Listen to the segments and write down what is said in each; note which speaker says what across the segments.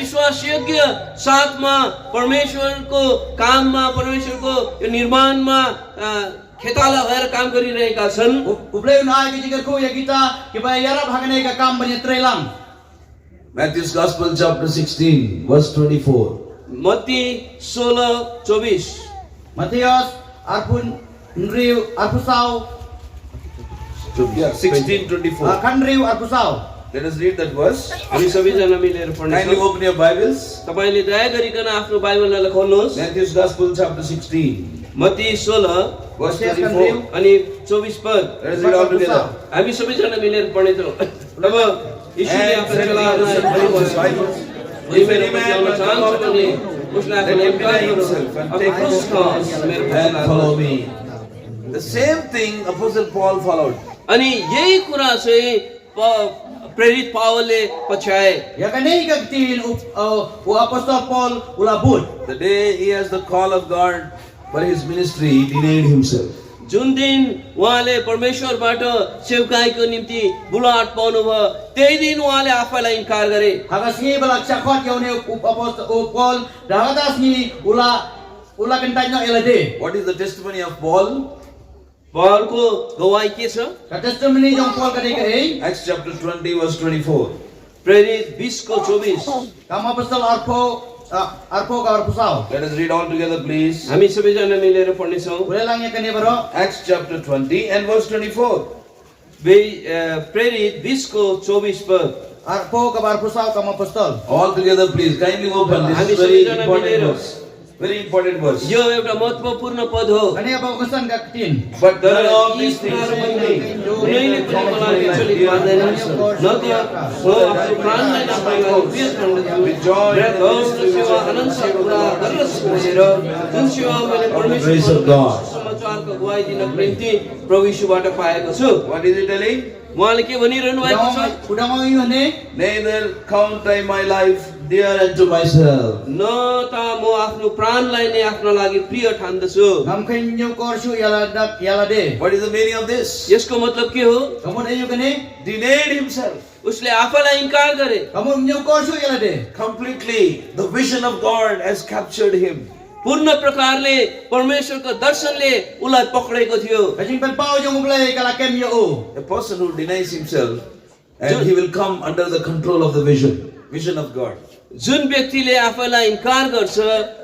Speaker 1: विश्वास योग्य साथमा परमेश्वरको काममा परमेश्वरको यो निर्माणमा अ, खेताला भएर काम गरिरहेका छन्
Speaker 2: Ublay na ay kita kuya ya kita kibayara hangane ka kam banya trelang.
Speaker 3: Matthew's Gospel, chapter 16, verse 24.
Speaker 1: मत्ती सोह्र चौबिस
Speaker 2: Matius arpun nriu arpusau
Speaker 3: Yeah, 16, 24.
Speaker 2: uh, kanriu arpusau.
Speaker 3: Ah, Let us read that verse.
Speaker 1: हामी सबैजना मिलेर
Speaker 3: Kindly
Speaker 1: पढ्नेछौँ
Speaker 3: open your Bibles.
Speaker 1: तपाईँले दया गरिकन आफ्नो बाइबललाई खोल्नुहोस्
Speaker 3: Matthew's Gospel, chapter 16,
Speaker 1: मत्ती सोह्र
Speaker 3: verse
Speaker 2: Yes,
Speaker 3: 24.
Speaker 1: अनि चौबिस पद
Speaker 3: Let us read all together.
Speaker 1: हामी सबैजना मिलेर पढ्नेछौँ तब यीशुले
Speaker 3: And
Speaker 1: आफ्नो
Speaker 3: secondly,
Speaker 1: चेलाहरूलाई
Speaker 3: let us
Speaker 1: भनी
Speaker 3: read his
Speaker 1: भन्नुभयो,
Speaker 3: Bibles.
Speaker 1: कोही मेरो पछि आउन चाहन्छ भने उसलाई आफ्नो
Speaker 3: Let him
Speaker 1: इन्कार
Speaker 3: deny
Speaker 1: गरोस्।
Speaker 3: himself and
Speaker 1: अब
Speaker 3: take
Speaker 1: क्रुस
Speaker 3: his
Speaker 1: खनुहोस्, मेरो पछि
Speaker 3: And follow
Speaker 1: लाग्नुहोस्।
Speaker 3: me. The same thing Apostle Paul followed.
Speaker 1: अनि यही कुरा चाहिँ प- प्रेरित पावलले पछ्याए
Speaker 2: Ya kanai ka tin u uh, u apostol Paul ulabut.
Speaker 3: The day he has the call of God for his ministry, he denied himself.
Speaker 1: जुन दिन उहाँले परमेश्वरबाट सेवकाईको निम्ति बुलाहट पाउनुभयो त्यही दिन उहाँले आफैलाई इन्कार गरे
Speaker 2: Hagas ni balak cakot yau ni u apostol u Paul dahatas ni ula ula kentanya elade.
Speaker 3: What is the testimony of Paul?
Speaker 1: पहलको गवाई के छ
Speaker 2: Ka testimony jong Paul kadai ka ei.
Speaker 3: Acts chapter 20, verse 24.
Speaker 1: प्रेरित बिसको चौबिस
Speaker 2: Kam apostol arpo uh, arpo ka arpusau.
Speaker 3: Let us read all together, please.
Speaker 1: हामी सबैजना मिलेर पढ्नेछौँ
Speaker 2: Ulay lang ya kanai baro.
Speaker 3: Acts chapter 20 and verse 24.
Speaker 1: बे- अ, प्रेरित बिसको चौबिस पद
Speaker 2: Arpo ka arpusaw kam apostol.
Speaker 3: All together, please. Kindly open. This is very important verse. Very important verse.
Speaker 1: यो एउटा महत्त्वपूर्ण पद हो
Speaker 2: Kanai Kan apa kesan ka tin?
Speaker 3: But
Speaker 1: तर
Speaker 3: none of
Speaker 1: यी
Speaker 3: these things.
Speaker 1: कुराहरू मध्ये कुनैले पनि मलाई विचलित पार्दैन। न त म आफ्नो प्राणलाई नाप्ने गरी उपयोग गर्दछु। मेरा धन र सेवा अनन्त कुरा गर्न सिक्नेर, जुन सेवा मैले परमेश्वरको सुसमाचारको गुहाई दिनको निम्ति प्रभु यीशुबाट पाएको छु
Speaker 3: What is he telling?
Speaker 1: उहाँले के भनिरहनु भएको छ
Speaker 2: Udang udang ang iyo ni.
Speaker 3: Neither count I my life dear unto myself.
Speaker 1: न त म आफ्नो प्राणलाई नै आफ्नो लागि प्रिय ठान्दछु
Speaker 2: Ngam kanyo korsu yala dak yala de.
Speaker 3: What is the meaning of this?
Speaker 1: यसको मतलब के हो
Speaker 2: Kamu na iyo kani?
Speaker 3: Denied himself
Speaker 1: उसले आफैलाई इन्कार गरे
Speaker 2: Kamu nyo korsu yala de.
Speaker 3: completely. The vision of God has captured him.
Speaker 1: पूर्ण प्रकारले परमेश्वरको दर्शनले उसलाई पक्रेको थियो
Speaker 2: Kasing pagpao yung ublay kalakem yo o.
Speaker 3: A person who denies himself and he will come under the control of the vision, vision of God.
Speaker 1: जुन व्यक्तिले आफैलाई इन्कार गर्छ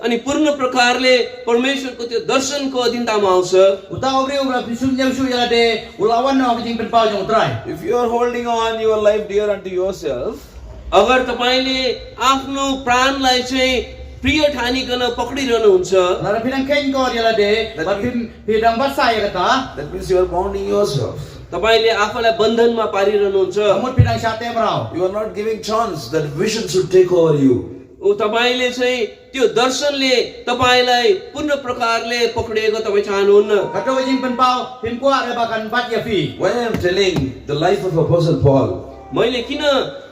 Speaker 1: अनि पूर्ण प्रकारले परमेश्वरको त्यो दर्शनको अधीनतामा आउँछ
Speaker 2: Uta obre ubla pisum nyo su yala de. Ulawan na kasing pagpao yung utray.
Speaker 3: If you are holding on your life dear unto yourself,
Speaker 1: अगर तपाईँले आफ्नो प्राणलाई चाहिँ प्रिय ठानिकन पक्रिरहनुहुन्छ
Speaker 2: Lara pinang ken kor yala de.
Speaker 3: That
Speaker 2: Patim pidang basa ya kata.
Speaker 3: that means you are bounding yourself.
Speaker 1: तपाईँले आफैलाई बन्धनमा पारिरहनुहुन्छ
Speaker 2: Kamu pinang syate merau.
Speaker 3: You are not giving chance that vision should take over you.
Speaker 1: ऊ तपाईँले चाहिँ त्यो दर्शनले तपाईँलाई पूर्ण प्रकारले पक्रिएको तपाईँ चाहनुहुन्न
Speaker 2: Kato kasing pagpao pimkuar ya bakan bat ya fi.
Speaker 3: Why I am telling the life of Apostle Paul?
Speaker 1: मैले किन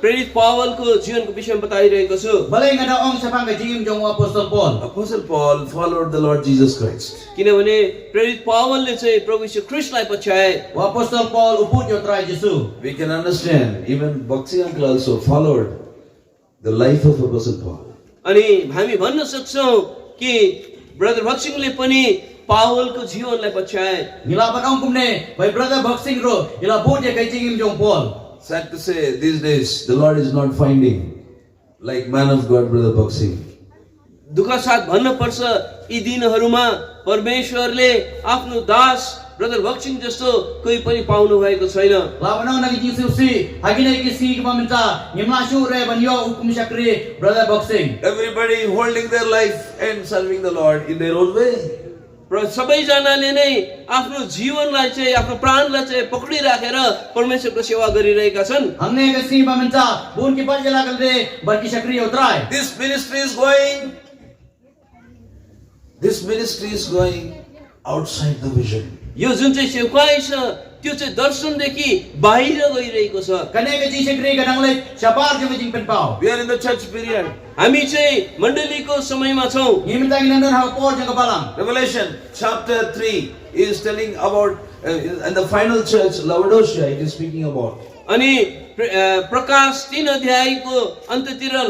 Speaker 1: प्रेरित पावलको जीवनको विषयमा बताइरहेको छु
Speaker 2: Balay nga daong sapang kajim jong apostol Paul.
Speaker 3: Apostle Paul followed the Lord Jesus Christ.
Speaker 1: किनभने प्रेरित पावलले चाहिँ प्रभु यीशु ख्रिस्टलाई पछ्याए
Speaker 2: O Apostol Paul upod yung try Jesus.
Speaker 3: We can understand even Bhakti uncle also followed the life of Apostle Paul.
Speaker 1: अनि हामी भन्न सक्छौँ कि brother भक्सिङले पनि पावलको जीवनलाई पछ्याए
Speaker 2: Nilaban ang kumne, by brother boxing ro, ilabot yung kay Jingim Jong Paul.
Speaker 3: Sad to say, these days the Lord is not finding like man of God, Brother Bhakti.
Speaker 1: दुःख साथ भन्नुपर्छ यी दिनहरूमा परमेश्वरले आफ्नो दास ब्रदर भक्सिङ जस्तो कोही पनि पाउनु भएको छैन
Speaker 2: Laban ang nagiging susi, hagi na ikisi kumaminta, ngimla syure banyo ukum syakri, brother boxing.
Speaker 3: Everybody holding their life and serving the Lord in their own way.
Speaker 1: र सबैजनाले नै आफ्नो जीवनलाई चाहिँ आफ्नो प्राणलाई चाहिँ पक्रिराखेर परमेश्वरको सेवा गरिरहेका छन्
Speaker 2: Ang na ikisi paminta, buon kipat yung lakalde, barki syakri yung try.
Speaker 3: This ministry is going. This ministry is going outside the vision.
Speaker 1: यो जुन चाहिँ सेवकाई छ त्यो चाहिँ दर्शनदेखि बाहिर गइरहेको छ
Speaker 2: Kanya ka jing syakri kadang lek, syapar yung kajing penpaw.
Speaker 3: We are in the church period.
Speaker 1: हामी चाहिँ मण्डलीको समयमा छौँ
Speaker 2: Ngiminta nginandun hao por yung kabalang.
Speaker 3: Revelation chapter 3 is telling about, uh, and the final church, Laodicea, it is speaking about.
Speaker 1: अनि प्र- अ, प्रकाश तिन अध्यायको अन्त्यतिर